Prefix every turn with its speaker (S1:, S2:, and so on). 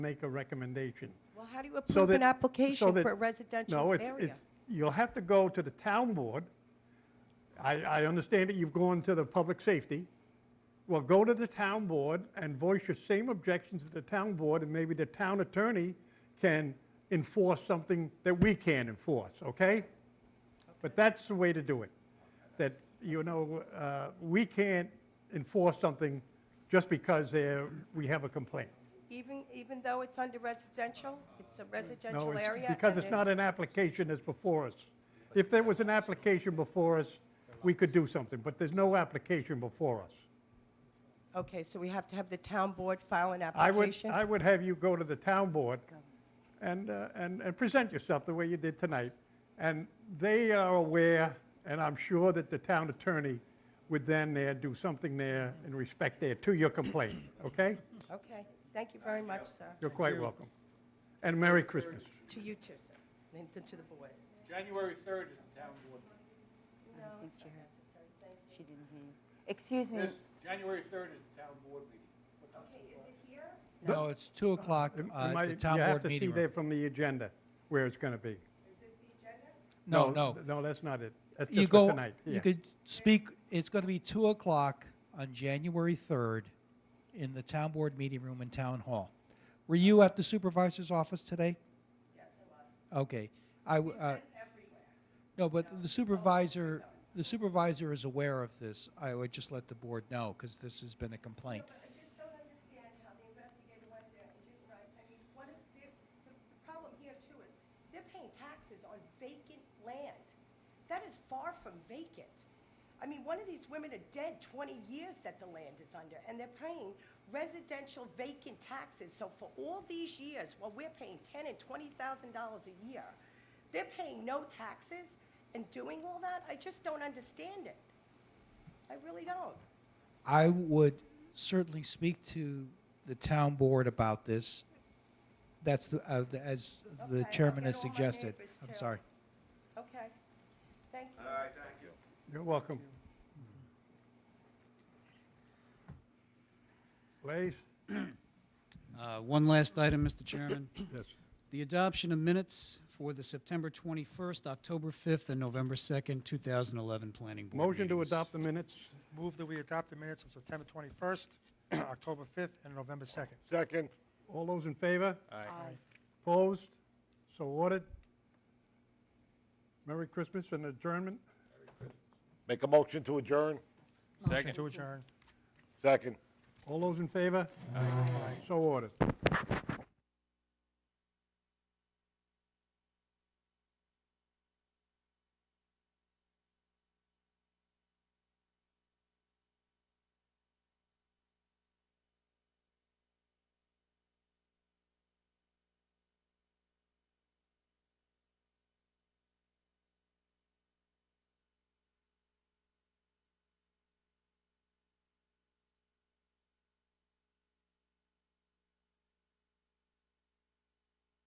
S1: make a recommendation.
S2: Well, how do you
S1: So
S2: approve an
S1: that- so
S2: application
S1: that-
S2: for a residential
S1: No, it's,
S2: area?
S1: it's, you'll have to go to the town board. I, I understand that you've gone to the public safety. Well, go to the town board and voice your same objections to the town board, and maybe the town attorney can enforce something that we can't enforce, okay? But that's the way to do it, that, you know, uh, we can't enforce something just because there, we have a complaint.
S2: Even, even though it's under residential, it's a
S1: No,
S2: residential
S1: it's-
S2: area?
S1: because
S2: and
S1: it's not
S2: there's-
S1: an application that's before us. If there was an application before us, we could do something, but there's no application before us.
S2: Okay, so we have to have the town board file an
S1: I would,
S2: application?
S1: I would have you go to the town board and, uh, and, and present yourself the way you did tonight. And they are aware, and I'm sure that the town attorney would then there do something there in respect there to your complaint, okay?
S2: Okay, thank you very much, sir.
S1: You're quite welcome. And Merry Christmas.
S2: To you too, sir, and to- to the board.
S3: January 3rd is the town board.
S4: I don't think she heard. She didn't hear you. Excuse me.
S3: This, January 3rd is the town board meeting. What time is it?
S5: No, it's 2 o'clock,
S1: You
S5: uh,
S1: might-
S5: the town
S1: You have
S5: board
S1: to see
S5: meeting
S1: there
S5: room.
S1: from the agenda where it's going to be.
S5: No, no.
S1: th- No, that's not it. That's
S5: You
S1: just for
S5: go,
S1: tonight. Yeah.
S5: you could speak, it's going to be 2 o'clock on January 3rd in the town board meeting room in Town Hall. Were you at the supervisor's office today? Yes, I was. Okay. I, w- uh, no, but the supervisor, the supervisor is aware of this. I would just let the board know, because this has been a complaint.
S2: I just don't understand how the investigator went there and didn't write, I mean, what if, the, the the problem here too is, they're paying taxes on vacant land. That is far from vacant. I mean, one of these women are dead twenty years that the land is under, and they're paying residential vacant taxes. So for all these years, while we're paying ten and twenty thousand dollars a year, they're paying no taxes and doing all that? I just don't understand it. I really don't.
S5: I would certainly speak to the town board about this. That's the, uh, the- as
S2: Okay,
S5: the
S2: I'll
S5: chairman
S2: get
S5: has
S2: all my
S5: suggested.
S2: neighbors
S5: I'm
S2: too.
S5: sorry.
S2: Okay, thank you.
S1: You're welcome. Lays?
S6: Uh, One last item, Mr. Chairman.
S1: Yes.
S6: The adoption of minutes for the September 21st, October 5th, and November 2nd, 2011 Planning Board
S1: Motion to
S6: meetings.
S1: adopt the minutes?
S7: Move that we adopt the minutes of September 21st, October 5th, and November 2nd.
S3: Second.
S1: All those in favor?
S7: Aye.
S1: Opposed? So ordered. Merry Christmas and adjournment.
S8: Make a motion to adjourn?
S7: Motion to adjourn.
S8: Second.
S1: All those in favor?
S7: Aye.
S1: So ordered.